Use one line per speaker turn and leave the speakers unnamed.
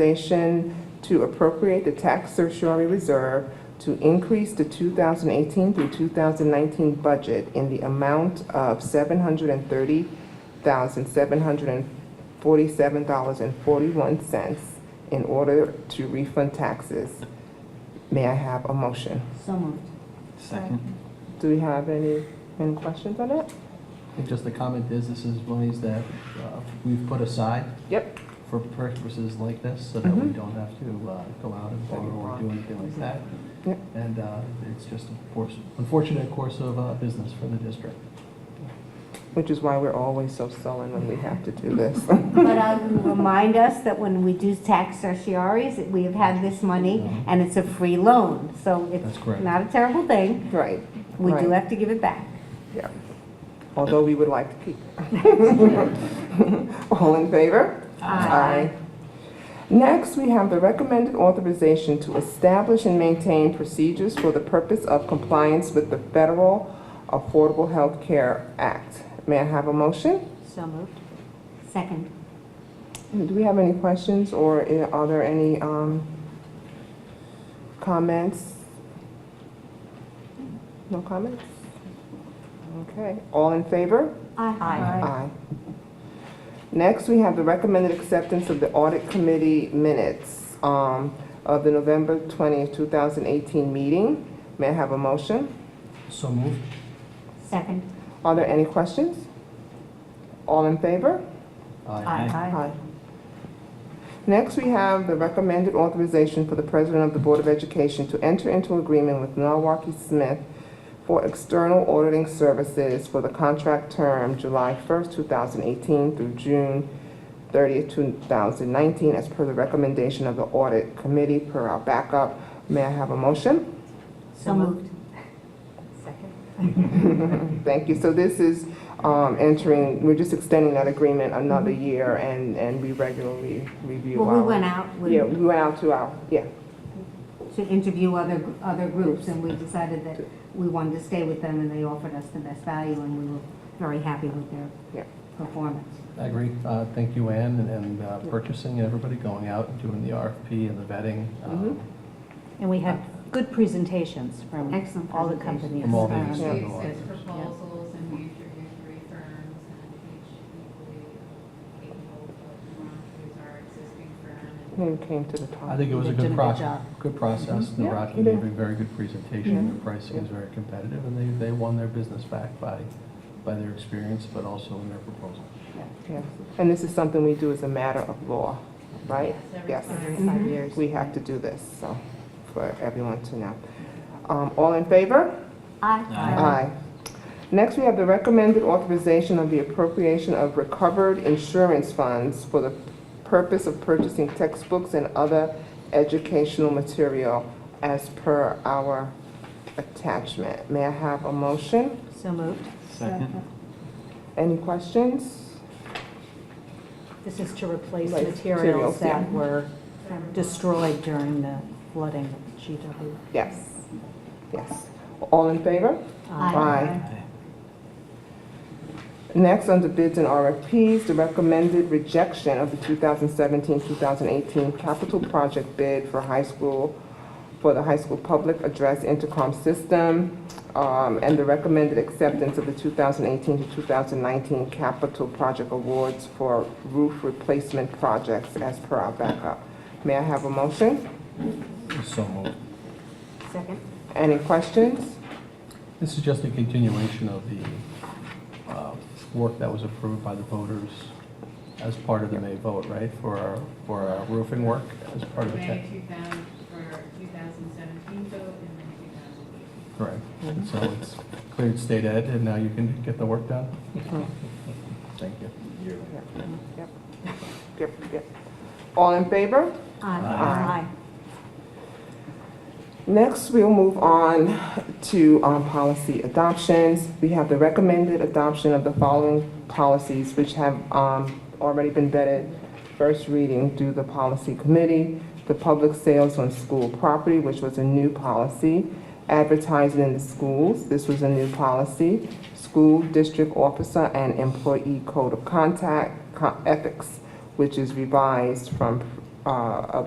authorization to appropriate the tax surcharge reserve to increase the 2018 through 2019 budget in the amount of $730,747.41 in order to refund taxes. May I have a motion?
So moved.
Second.
Do we have any, any questions on it?
And just the comment is, this is monies that uh, we've put aside
Yep.
for purposes like this, so that we
Mhm.
don't have to uh, go out and borrow or do anything like that.
Yep.
And uh, it's just a course, unfortunate course of uh, business for the district.
Which is why we're always so sullen when we have to do this.
But I would remind us that when we do tax certioraries, that we have had this money,
Mhm.
and it's a free loan, so it's
That's correct.
not a terrible thing.
Right,
We do
Right.
have to give it back.
yeah. Although we would like to keep it. All in favor?
Aye.
Next, we have the recommended authorization to establish and maintain procedures for the purpose of compliance with the Federal Affordable Health Care Act. May I have a motion?
So moved. Second.
Do we have any questions or i- are there any um, comments? No comments? Okay, all in favor?
Aye.
Aye. Next, we have the recommended acceptance of the audit committee minutes um, of the November 20th, 2018 meeting. May I have a motion?
So moved.
Second.
Are there any questions? All in favor?
Aye.
Next, we have the recommended authorization for the President of the Board of Education to enter into agreement with Milwaukee Smith for external auditing services for the contract term July 1st, 2018 through June 30th, 2019, as per the recommendation of the Audit Committee per our backup. May I have a motion?
So moved. Second.
Thank you. So this is um, entering, we're just extending that agreement another year, and and we regularly review our...
Well, we went out with-
Yeah, we went out to our, yeah.
to interview other, other groups, and we decided that we wanted to stay with them, and they offered us the best value, and we were very happy with
Yeah.
their performance.
I agree. Uh, Thank you, Ann, and- and uh, purchasing, and everybody going out and doing the RFP and the vetting uh,
Mhm.
And we had good presentations from
Excellent
all the
presentation.
companies.
from all the
Um,
industry.
We
lawyers.
six proposals and we interviewed three firms and each equally capable of one who's our existing firm. and
Name came to the top.
I think it was a
They did a
good
good
process,
job.
good process.
Yeah,
Naraki
they
gave
did.
a very good presentation.
Yeah.
Their pricing is very competitive, and they, they won their business back by, by their experience, but also in their proposal.
Yeah. And this is something we do as a matter of law, right?
Yes, every
Yes.
five
Mhm.
years.
We have to do this, so, for everyone to know. Um, All in favor?
Aye.
Aye. Next, we have the recommended authorization of the appropriation of recovered insurance funds for the purpose of purchasing textbooks and other educational material as per our attachment. May I have a motion?
So moved.
Second.
Any questions?
This is to replace
Like materials,
materials
yeah.
that were destroyed during the flooding of GW.
Yes. Yes. All in favor? Aye. Next, under bids and RFPs, the recommended rejection of the 2017-2018 capital project bid for high school, for the high school public address intercom system, um, and the recommended acceptance of the 2018 to 2019 capital project awards for roof replacement projects as per our backup. May I have a motion?
So moved.
Second.
Any questions?
This is just a continuation of the uh, work that was approved by the voters as part of the May vote, right? For our, for our roofing work as part of the
May
tech.
2000, for 2017 vote and then 2018.
Correct.
Mm-hmm.
And so it's cleared state ed, and now you can get the work done? Thank you.
Yep, yep, yep. All in favor? Aye.
Aye.
Next, we'll move on to um, policy adoptions. We have the recommended adoption of the following policies, which have um, already been vetted, first reading through the policy committee, the public sales on school property, which was a new policy, advertising in the schools, this was a new policy, school district officer and employee code of contact, co- ethics, which is revised from uh, of